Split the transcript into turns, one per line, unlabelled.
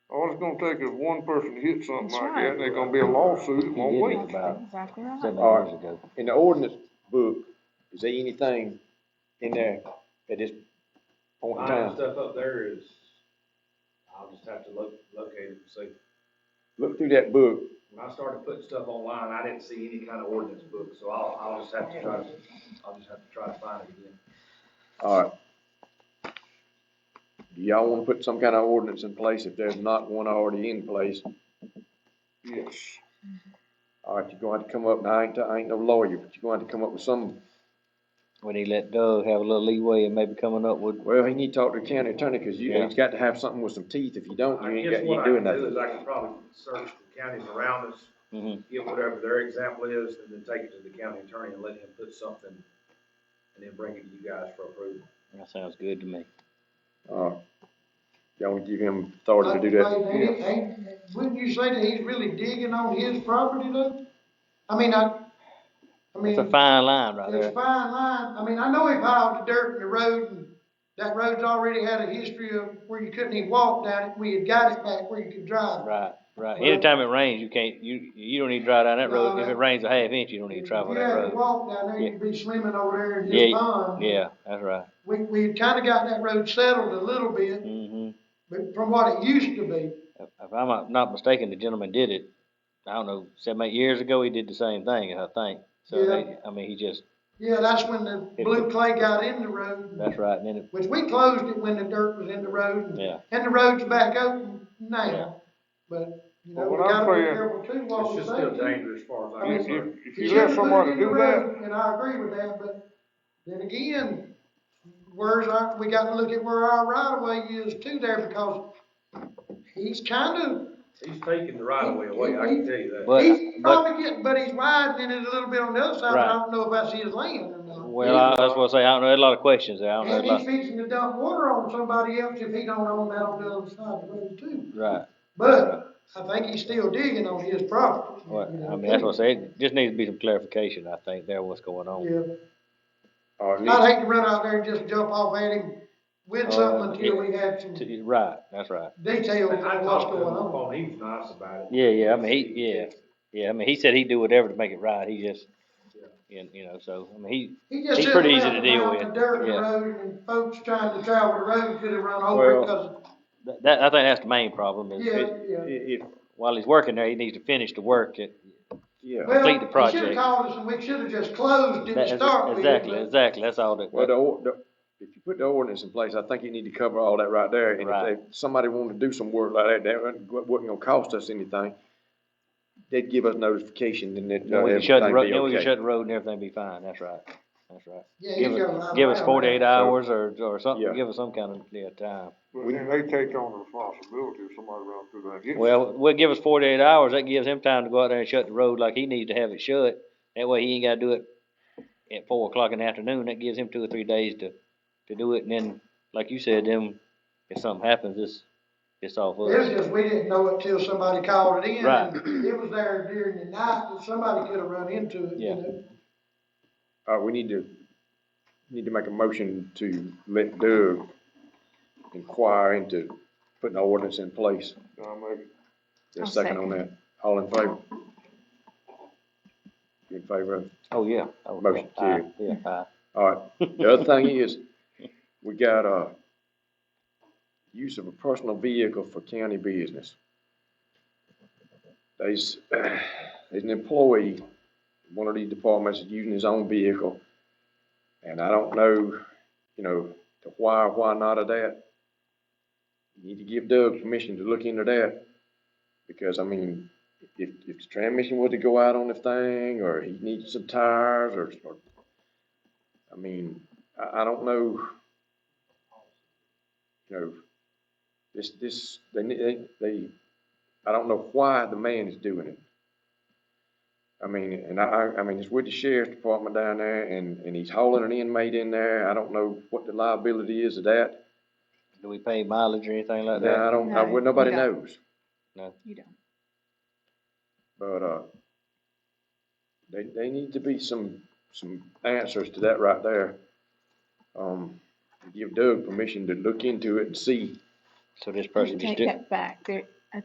gonna take if one person hits something
That's
like
right.
that, there's gonna be a lawsuit in one
You
week.
didn't about
Exactly right.
seven
Alright.
years ago.
In the ordinance book, is there anything in there at this point in
Mine and
time?
stuff up there is, I'll just have to look, locate it and see.
Look through that book,
When I started putting stuff online, I didn't see any kind of ordinance book, so I'll, I'll just have to try to, I'll just have to try to find it again.
alright. Do y'all wanna put some kind of ordinance in place if there's not one already in place?
Yes.
Alright, you're gonna have to come up, and I ain't, I ain't no lawyer, but you're gonna have to come up with some
When he let Doug have a little leeway and maybe coming up with,
Well, he need to talk to the county attorney, cause you,
Yeah.
he's got to have something with some teeth, if you don't, you
I
ain't
guess
got, you
what
ain't
I
doing
can do is
nothing. Mm-hmm.
I can probably search the counties around us,
Mhm.
get whatever their example is, and then take it to the county attorney and let him put something, and then bring it to you guys for approval.
that sounds good to me.
Alright. Y'all wanna give him authority to do that?
Like, ain't- ain't- Wouldn't you say that he's really digging on his property though? I mean, I, I mean,
It's a
it's a
fine line right there.
fine line. I mean, I know he piled the dirt in the road and that road's already had a history of where you couldn't even walk down it. We had got it back where you could drive.
Right, right.
Well-
Anytime it rains, you can't, you, you don't need to drive down that road. If it rains a half inch, you don't need to travel that
If you had to
road.
walk down there, you'd be swimming over there in his
Yeah,
pond.
Yeah, that's right.
We, we had kinda got that road settled a little bit,
hmm
but from what it used to be.
If if I'm not- not mistaken, the gentleman did it, I don't know, seven, eight years ago, he did the same thing, I think. So they, I mean, he just,
Yeah, that's when the
It-
blue clay got in the road.
that's right, and then it,
Which we closed it when the dirt was in the road.
Yeah.
And the road's back open
Yeah.
now, but, you know,
Well,
we
what I'm
gotta be
saying,
careful too,
It's
what we
just still
say.
dangerous as far as I'm
If,
concerned.
if, if you let somebody do that,
And I agree with that, but then again, where's our, we gotta look at where our right of way is too there because he's kind
He's taking the right of way away, I can tell you that.
But-
of, he's
but-
probably getting, but he's widening it a little bit on the other side, but
Right.
I don't know if that's his land or not.
well, I that's what I say, I don't know, there's a lot of questions there, I don't know. there's
And
a lot-
he's fixing to dump water on somebody else if he don't own that on the other side of the road too.
Right,
But I think he's still digging on his property.
well, I mean, that's what I say, it just needs to be some clarification, I think, there, what's going on.
Yeah,
Alright,
I'd hate to run out there and just jump off at him with something until we have some
Uh, To- Right, that's right.
detail
But I
on what's
talked to
going
him on the
on.
phone, he was nice about it.
Yeah, yeah, I mean, he, yeah, yeah, I mean, he said he'd do whatever to make it right, he just, and, you know, so, I mean, he,
He just
He's
sitting
pretty easy
around
to deal
around
with,
The dirt
yeah.
road and folks trying to travel the road could have run over
Well,
it because,
that, that- I think that's the main problem, is,
yeah,
it-
yeah.
if,
while he's working there, he needs to finish the work, it,
yeah,
Well,
complete the
He should have
project.
called us and we should have just closed it
That
to
is-
start with.
Exactly,
but-
exactly, that's all that.
well, the, or- the, if you put the ordinance in place, I think you need to cover all that right there. And
Right.
if they- somebody wanted to do some work like that, that wasn't wasn't gonna cost us anything. They'd give us notification and it,
Then we can
everything
shut the road,
be
then we can
okay.
shut the road and everything be fine, that's right, that's right.
Yeah, he's
Give
got a lot
us,
of
give us
ground.
forty-eight hours or, or
Yeah.
something, give us some kind of, yeah, time.
but then they take on the responsibility if somebody runs through there and hits.
Well, we'll give us forty-eight hours, that gives him time to go out there and shut the road like he needs to have it shut. That way he ain't gotta do it at four o'clock in the afternoon, that gives him two or three days to, to do it, and then, like you said, then if something happens, it's, it's off
It was
us.
just, we didn't know it till somebody called it in.
Right.
and It was there during the night, and somebody could have run into it,
Yeah.
you know?
Alright, we need to, need to make a motion to let Doug inquire into putting the ordinance in place.
I mean,
There's a
I'll
second on that. All in favor? You in favor? of it?
Oh, yeah. Oh, yeah.
Motion
Aye,
carried.
Yeah, aye.
All right. The other thing is, we got, uh, use of a personal vehicle for county business. There's, there's an employee, in one of these departments is using his own vehicle. And I don't know, you know, the why, or why not of that. You Need to give Doug permission to look into that. Because, I mean, if, if the transmission was to go out on the thing, or he needs some tires, or, or I mean, I, I don't know. You know, this, this, they, ne- they, they, I don't know why the man is doing it. I mean, and I- I, I mean, it's with the sheriff's department down there and, and he's hauling an inmate in there. I don't know what the liability is of that.
Do we pay mileage or anything like
Now,
that?
I don't, I,
No,
well, nobody
you don't.
knows,
You don't.
but, uh, they, they need to be some, some answers to that right there. Um, give Doug permission to look into it and see
So this
You
person just
take
did,
that back. There,